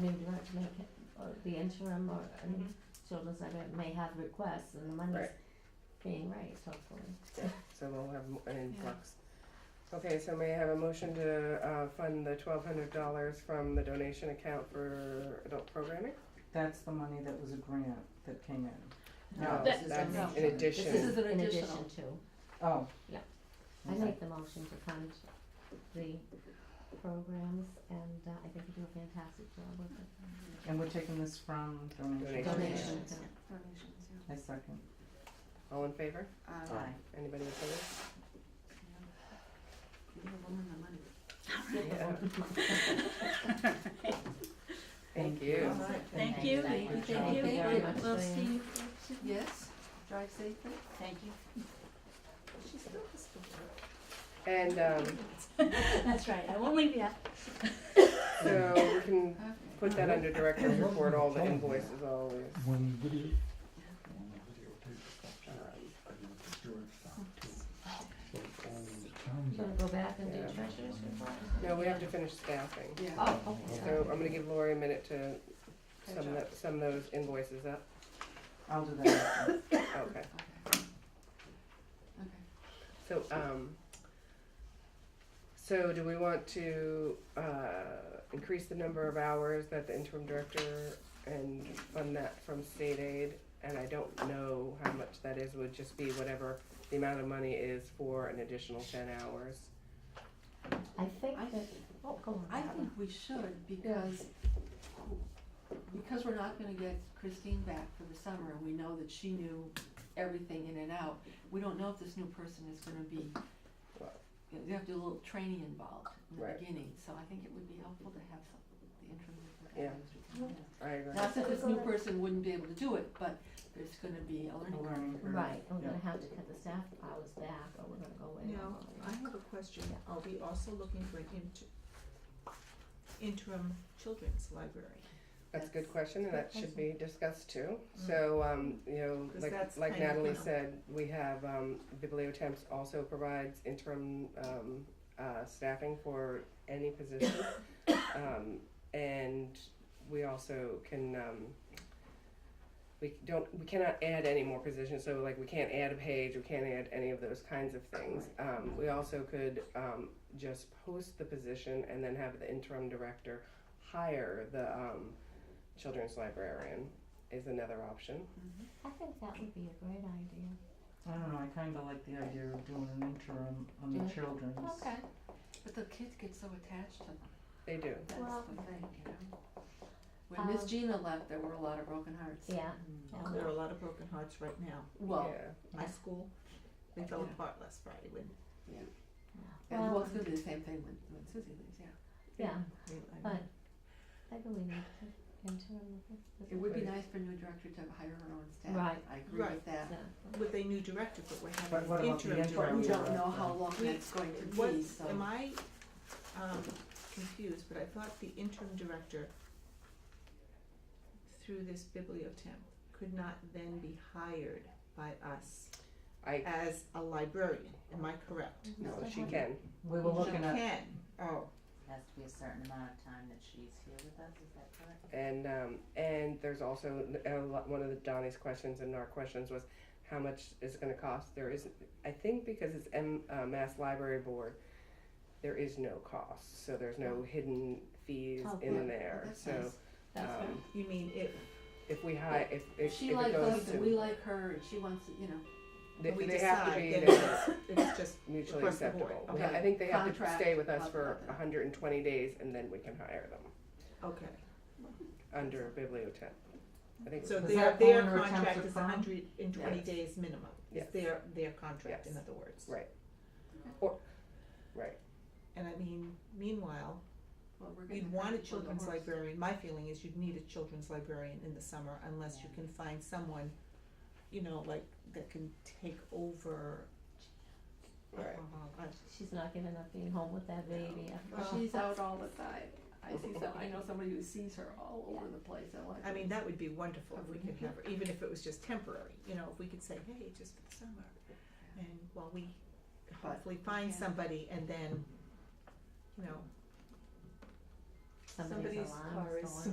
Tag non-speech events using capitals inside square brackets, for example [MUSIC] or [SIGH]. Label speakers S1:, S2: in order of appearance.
S1: mean, not to make it, or the interim or, and
S2: Mhm.
S1: children's center may have requests and the money's
S3: Mm-hmm. Right.
S1: being raised, hopefully.
S3: So we'll have mo- an influx. Okay, so may I have a motion to, uh, fund the twelve hundred dollars from the donation account for adult programming?
S4: That's the money that was a grant that came in. Uh,
S3: No,
S4: No,
S2: that-
S3: that's
S1: no.
S3: in
S2: This is
S3: addition.
S2: an
S1: In
S2: additional.
S1: addition to,
S4: Oh.
S1: Yeah. I
S3: Mm-hmm.
S4: Okay.
S1: make the motion to fund the programs and uh, I think you do a fantastic job with it.
S4: And we're taking this from donation.
S3: Donation.
S1: Donation account.
S2: Donations, yeah.
S4: I second.
S3: All in favor?
S2: Um,
S4: Aye.
S5: [LAUGHS]
S3: Anybody opposed?
S2: Give the woman the money.
S3: Yeah. Thank
S4: Thank
S3: you.
S5: Thank you, thank you, thank you.
S1: Thank you very much.
S5: We'll
S1: Diane.
S5: see you.
S2: Yes, drive safely.
S5: Thank you.
S2: She's still has to work.
S3: And, um,
S5: That's right, I won't leave yet.
S3: so we can
S2: Okay.
S3: put that under director's report, all the invoices, all this.
S6: When video, when the videotape stops,
S3: Um,
S6: I do the George stop too. So all the
S1: You
S6: towns
S1: gonna
S6: are
S1: go back and do
S3: Yeah.
S1: treasurer's report?
S3: No, we have to finish staffing.
S2: Yeah.
S1: Oh, okay.
S3: So I'm gonna give Lori a minute to
S2: Good
S3: sum
S2: job.
S3: that, sum those invoices up.
S4: I'll do that after.
S3: Okay.
S2: Okay. Okay.
S3: So, um, so do we want to, uh, increase the number of hours that the interim director and fund that from state aid? And I don't know how much that is, would just be whatever the amount of money is for an additional ten hours.
S1: I think
S2: I
S1: that, oh, go on.
S2: I
S1: Barbara.
S2: think we should because, because we're not gonna get Christine back for the summer and we know that she knew everything in and out. We don't know if this new person is gonna be, you know, you have to do a little training involved in the
S3: Right.
S2: beginning, so I think it would be helpful to have some, the interim. with the
S3: Yeah.
S2: guidance we can have.
S3: I agree.
S2: Not that this new person wouldn't be able to do it, but there's gonna be a learning curve.
S4: Learning curve.
S1: Right, and we're
S4: Yeah.
S1: gonna have to cut the staff hours back or we're gonna go way
S7: Now,
S1: over.
S7: I have a question, are we also looking for an inter- interim children's library?
S3: That's a good question, and that should be discussed too. So, um, you know,
S7: 'Cause
S3: like,
S7: that's
S3: like
S7: kind of
S3: Natalie
S7: now.
S3: said, we have, um, Bibliotemps also provides interim, um, uh, staffing for any position.
S7: [COUGHS]
S3: Um, and we also can, um, we don't, we cannot add any more positions, so like, we can't add a page, we can't add any of those kinds of things. Um, we also could, um, just post the position and then have the interim director hire the, um, children's librarian is another option.
S1: I think that would be a great idea.
S4: I don't know, I kinda like the idea of doing an interim on the
S1: Yeah.
S4: children's.
S2: Okay, but the kids get so attached to them,
S3: They do.
S2: that's
S1: Well-
S2: the thing, you know? When Miss
S1: Um,
S2: Gina left, there were a lot of broken hearts.
S1: Yeah.
S2: Oh,
S7: Now, There are a lot of broken hearts right now.
S2: Well,
S3: yeah.
S7: My school, they fell
S2: Yeah.
S7: apart last Friday when
S2: And we'll
S1: Well,
S2: go through the same thing when, when Susie leaves, yeah.
S1: yeah,
S7: we, I
S1: but I believe we could interim.
S2: It would be
S3: Right.
S2: nice for new director to hire her own staff.
S1: Right.
S2: I agree with
S7: Right.
S2: that.
S7: with a new director, but we're
S4: But what
S7: having an
S4: about the
S7: interim
S4: interim?
S7: director.
S2: But we don't
S4: Yeah.
S2: know how long
S7: We-
S2: that's going to
S7: What,
S2: be, so.
S7: am I, um, confused, but I thought the interim director through this bibliotemp could not then be hired by us
S3: I-
S7: as a librarian, am I correct?
S3: No, she can.
S4: We were
S7: She
S4: looking at,
S7: can, oh,
S8: Has to be a certain amount of time that she's here with us, is that correct?
S3: And um, and there's also a lot, one of the Donnie's questions and our questions was how much is it going to cost? There is, I think, because it's M, uh, Mass Library Board, there is no cost, so there's no hidden fees
S1: Oh,
S3: in
S1: good.
S3: there.
S2: That's
S3: so
S2: nice. That's
S3: um,
S2: right.
S7: you mean if
S3: if we hire, if
S2: If
S3: if,
S2: she
S3: if it
S2: likes
S3: goes
S2: us
S3: to,
S2: and we like her and she wants to, you know,
S3: they,
S7: we
S3: they have to
S7: decide,
S3: be
S7: then
S3: there.
S7: it's, it's just
S3: mutually
S7: Across the board,
S3: acceptable. We-
S2: okay.
S3: I think they have
S2: Contract,
S3: to stay with us
S2: blah,
S3: for
S2: blah, blah.
S3: 120 days, and then we can hire them
S7: Okay,
S3: under bibliotemp. I think
S7: so
S4: Was
S7: their,
S4: that
S7: their
S4: Eleanor
S7: contract
S4: Townsend
S7: is
S4: Brown?
S7: hundred and twenty
S3: Yes.
S7: days minimum, is
S3: Yes.
S7: their, their contract, in
S3: Yes.
S7: other words.
S3: Right. Or, right.
S7: And I mean, meanwhile,
S2: well, we're gonna.
S7: You'd
S2: have
S7: want
S2: to
S7: a
S2: pull the
S7: children's
S2: horse.
S7: librarian, my feeling is you'd need a children's librarian in the summer unless you can find someone, you know, like, that can take over.
S3: Right.
S7: Uh, I-
S1: She's not giving up being home with that baby.
S2: But She's out all the time. I see some, I know somebody who sees her all over the place, I like.
S7: I mean, that would be wonderful if we could have her, even if it was just temporary, you know, if we could say, hey, just for the summer. And while we
S2: But
S7: hopefully find
S2: yeah.
S7: somebody and then, you know,
S1: Somebody's
S7: Somebody's
S1: alarm
S7: car
S1: is
S7: is
S1: going.